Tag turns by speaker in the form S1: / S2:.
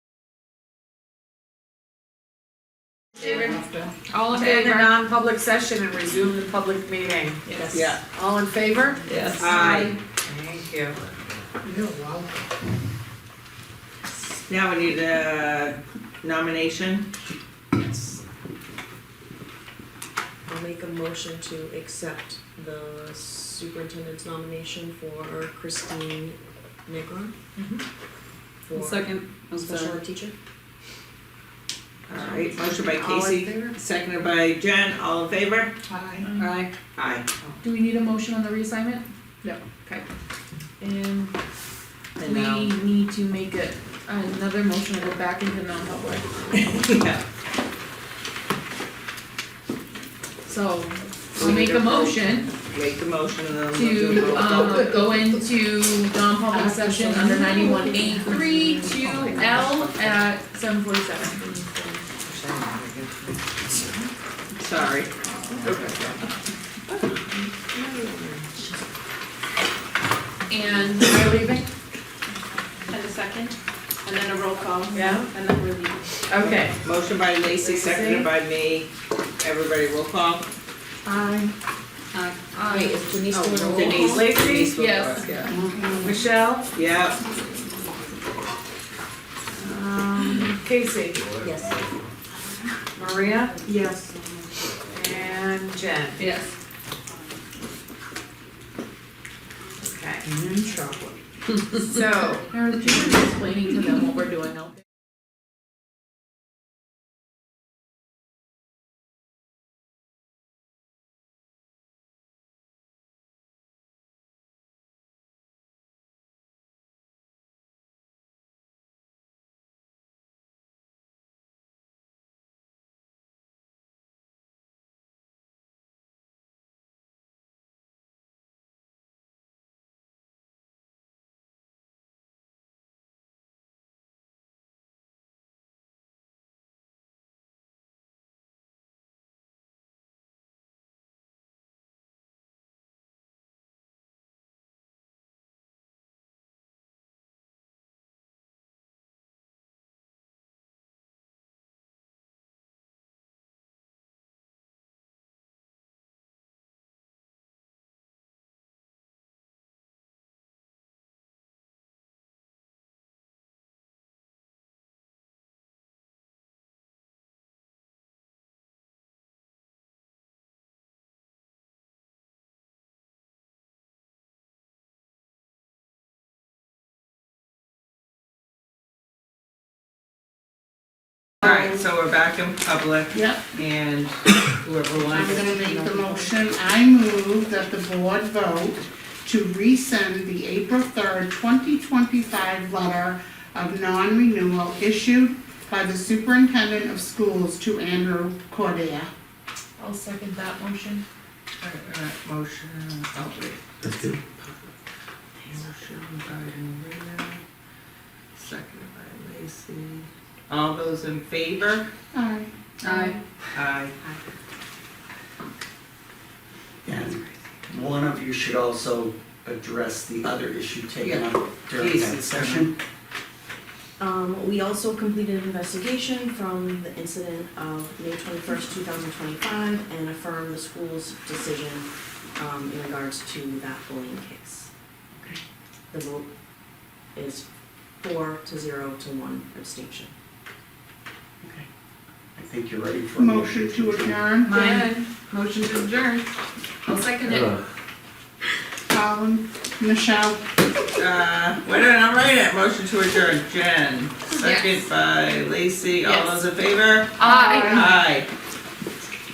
S1: All in
S2: Stay in the
S1: favor?
S2: non-public session and resume the public meeting.
S1: Yes.
S3: Yeah.
S2: All in favor?
S1: Yes.
S2: Aye. Thank you.
S3: You're welcome.
S4: Now we need a nomination.
S5: I'll make a motion to accept the superintendent's nomination for Christine Negron.
S4: Mm-hmm.
S1: I'll
S5: For
S1: Second, I'll
S5: special
S1: second.
S5: ed teacher.
S4: Alright, motion by
S2: All in
S4: Casey,
S2: favor?
S4: seconded by Jen, all in favor?
S3: Hi.
S1: Aye.
S4: Aye.
S1: Do we need a motion on the reassignment? No. Okay. And
S4: And
S1: we
S4: now,
S1: need to make it another motion to go back into non-public.
S4: yeah,
S1: So,
S4: We
S1: I'll
S4: need
S1: make
S4: a
S1: a motion
S4: make the motion and then. we'll do a
S1: to,
S4: roll call.
S1: um, go into non-public session under ninety-one A three to L at seven forty-seven.
S4: Sorry.
S1: And
S2: Are we leaving?
S6: And a second, and then a roll call,
S2: Yeah,
S6: and then we're leaving.
S2: okay.
S4: Motion by Lacy, seconded by me, everybody roll call.
S2: Aye.
S1: I,
S5: Wait, is Denise
S4: Oh,
S5: doing a roll
S4: Denise.
S5: call?
S2: Lacey,
S4: Denise will do it.
S1: Yes.
S4: Yeah.
S2: Michelle,
S4: Yeah,
S2: um, Casey,
S5: Yes.
S2: Maria,
S1: yes.
S2: and Jen.
S1: Yes.
S2: Okay, I'm in trouble. So,
S1: Or just explaining to them what we're doing out there.
S4: alright, so we're back in public
S3: Yep,
S4: and whoever
S3: I'm
S4: wants.
S3: gonna make the motion, I move that the board vote to rescind the April third, twenty twenty-five letter of non-renewal issued by the superintendent of schools to Andrew Cordia.
S1: I'll second that motion.
S4: Alright, alright, Motion, oh wait. Motion by Maria, seconded by Lacy. All those in favor?
S3: Aye.
S1: Aye.
S4: Aye.
S7: And one of you should also address the other issue taken up during
S4: Please,
S7: that
S4: it's
S7: session.
S5: Um, we also completed an investigation from the incident of May twenty-first, two thousand twenty-five, and affirmed the school's decision, um, in regards to that bullying case. The vote is four to zero to one abstention.
S7: I think you're ready for. a
S3: Motion to adjourn,
S1: Mine, motion to adjourn. I'll second it.
S3: Colin, Michelle,
S4: Uh, wait a minute, I'm writing it, motion to adjourn, Jen, second by Lacy, all
S1: Yes.
S4: those in favor?
S1: Aye.
S4: Aye.